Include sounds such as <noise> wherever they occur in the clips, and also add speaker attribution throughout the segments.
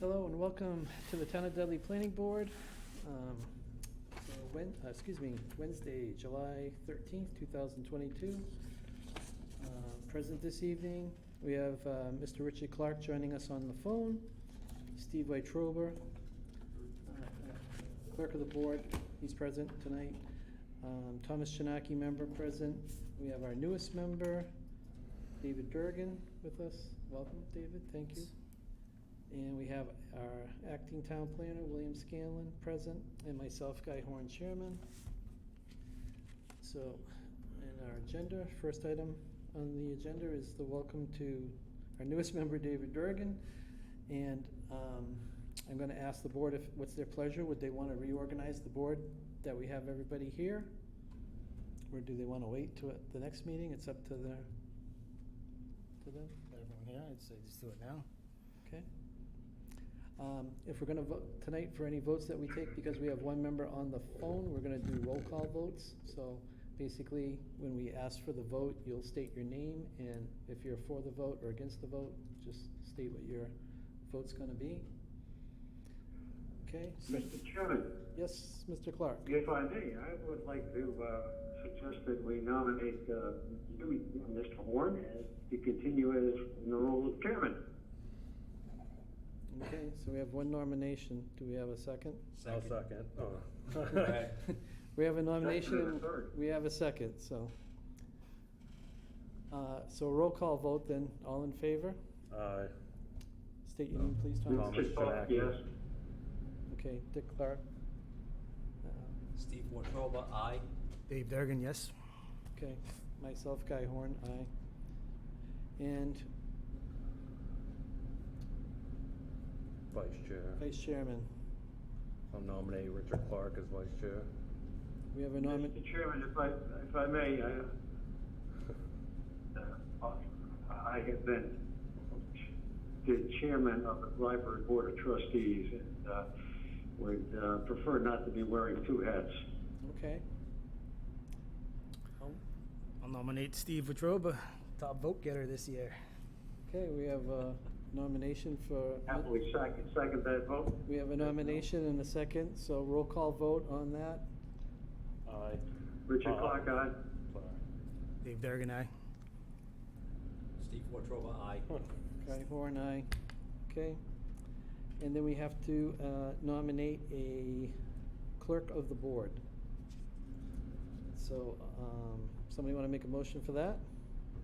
Speaker 1: Hello and welcome to the Town of Dudley Planning Board. Um, so When, uh, excuse me, Wednesday, July thirteenth, two thousand twenty-two. Uh, Present this evening, we have uh, Mr. Richard Clark joining us on the phone, Steve Weitrober, uh, Clerk of the Board, he's present tonight. Um, Thomas Chinaki, member present. We have our newest member, David Durgan, with us. Welcome, David, thank you. And we have our acting town planner, William Scanlon, present, and myself, Guy Horn, chairman. So, in our agenda, first item on the agenda is the welcome to our newest member, David Durgan. And um, I'm going to ask the board if, what's their pleasure? Would they want to reorganize the board that we have everybody here? Or do they want to wait to uh, the next meeting? It's up to their, to them?
Speaker 2: Got everyone here, I'd say just do it now.
Speaker 1: Okay. Um, If we're going to vote tonight for any votes that we take, because we have one member on the phone, we're going to do roll call votes. So basically, when we ask for the vote, you'll state your name, and if you're for the vote or against the vote, just state what your vote's going to be. Okay?
Speaker 3: Mr. Chairman,
Speaker 1: Yes, Mr. Clark?
Speaker 3: if I may, I would like to uh, suggest that we nominate uh, you, Mr. Horn, as- to continue as in the role of chairman.
Speaker 1: Okay, so we have one nomination. Do we have a second?
Speaker 4: I'll second. Oh.
Speaker 2: Right.
Speaker 4: <laughs>
Speaker 1: We have a
Speaker 3: Second and a
Speaker 1: nomination,
Speaker 3: third.
Speaker 1: we have a second, so. Uh, So roll call vote then, all in favor?
Speaker 4: Aye.
Speaker 1: State your name, please, Thomas.
Speaker 4: Thomas.
Speaker 3: Mr. Falk, Yes.
Speaker 1: Okay, Dick Clark. Uh,
Speaker 5: Steve Wontroba, aye.
Speaker 2: Dave Durgan, yes?
Speaker 1: Okay, myself, Guy Horn, aye. And
Speaker 4: Vice Chair.
Speaker 1: Vice Chairman,
Speaker 4: I'll nominate Richard Clark as Vice Chair.
Speaker 1: we have a nomination.
Speaker 3: Mr. Chairman, if I, if I may, I, uh, I have been the chairman of the library board of trustees and uh, would uh, prefer not to be wearing two hats.
Speaker 1: okay. Um,
Speaker 2: I'll nominate Steve Wetruba, top vote getter this year.
Speaker 1: Okay, we have a nomination for,
Speaker 3: Happily second, second that vote.
Speaker 1: we have a nomination and a second, so roll call vote on that.
Speaker 4: Aye.
Speaker 3: Richard
Speaker 4: Aye.
Speaker 3: Clark, aye.
Speaker 4: Sorry.
Speaker 2: Dave Durgan, aye.
Speaker 5: Steve Wontroba, aye.
Speaker 1: Guy Horn, aye. Okay. And then we have to uh, nominate a clerk of the board. So, um, somebody want to make a motion for that?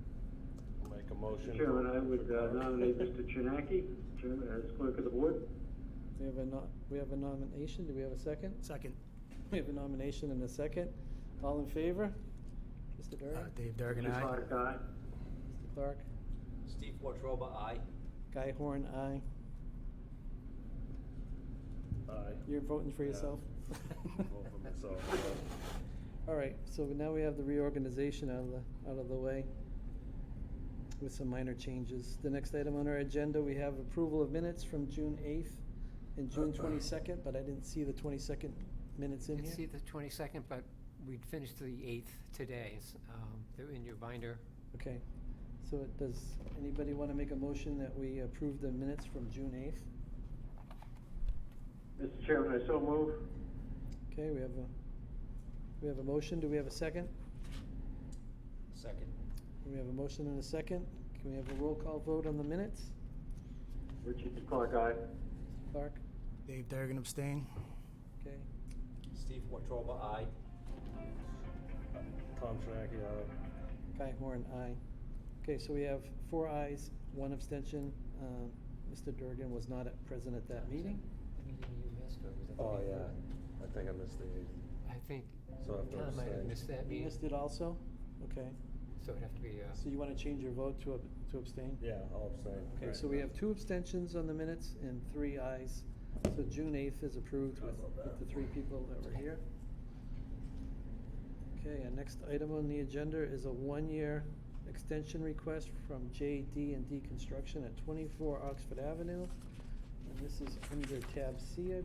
Speaker 4: <laughs> I'll Make a motion.
Speaker 3: Mr.
Speaker 4: for
Speaker 3: Chairman, I would
Speaker 4: Richard
Speaker 3: uh,
Speaker 4: Clark. <laughs>
Speaker 3: nominate Mr. Chinaki, Chairman, as clerk of the board.
Speaker 1: We have a, no- we have a nomination. Do we have a second? <laughs>
Speaker 2: Second,
Speaker 1: We have a nomination and a second. All in favor? Mr.
Speaker 2: uh,
Speaker 1: Durant?
Speaker 2: Dave Durgan,
Speaker 3: Mr.
Speaker 2: aye.
Speaker 3: Clark, aye.
Speaker 1: Mr. Clark?
Speaker 5: Steve Wontroba, aye.
Speaker 1: Guy Horn, aye.
Speaker 4: Aye.
Speaker 1: You're voting for
Speaker 4: Yeah.
Speaker 1: yourself? <laughs>
Speaker 4: Vote for myself.
Speaker 1: All right, so now we have the reorganization out of the, out of the way with some minor changes. The next item on our agenda, we have approval of minutes from June eighth and June twenty-second, but I didn't see the twenty-second minutes in
Speaker 6: Didn't see
Speaker 1: here.
Speaker 6: the 22nd, but we'd finished the 8th today. s- um, They're in your binder.
Speaker 1: Okay, so it- does anybody want to make a motion that we approve the minutes from June eighth?
Speaker 3: Mr. Chairman, I so move.
Speaker 1: Okay, we have a, we have a motion. Do we have a second?
Speaker 5: Second.
Speaker 1: We have a motion and a second. Can we have a roll call vote on the minutes?
Speaker 3: Richard Clark, aye.
Speaker 1: Clark?
Speaker 2: Dave Durgan abstain.
Speaker 1: Okay,
Speaker 5: Steve Wontroba, aye.
Speaker 4: Tom Shinaki, aye.
Speaker 1: Guy Horn, aye. Okay, so we have four ayes, one abstention. Um, Mr. Durgan was not at- present at that meeting.
Speaker 6: The meeting you missed, or was it the
Speaker 4: Oh,
Speaker 6: meeting?
Speaker 4: yeah. I think I missed the eighth.
Speaker 6: I think
Speaker 4: So I have to
Speaker 6: Tom might have
Speaker 4: abstain.
Speaker 6: missed that
Speaker 1: You
Speaker 6: meeting,
Speaker 1: missed it also? Okay,
Speaker 6: so it'd have to be, uh,
Speaker 1: so you want to change your vote to ab- to abstain?
Speaker 4: Yeah, I'll abstain.
Speaker 1: Okay,
Speaker 4: Right.
Speaker 1: so we have two abstentions on the minutes and three ayes. So June 8th is approved with with the three people that were here. Okay, our next item on the agenda is a one-year extension request from J.D. and D Construction at 24 Oxford Avenue. And this is under tab C, I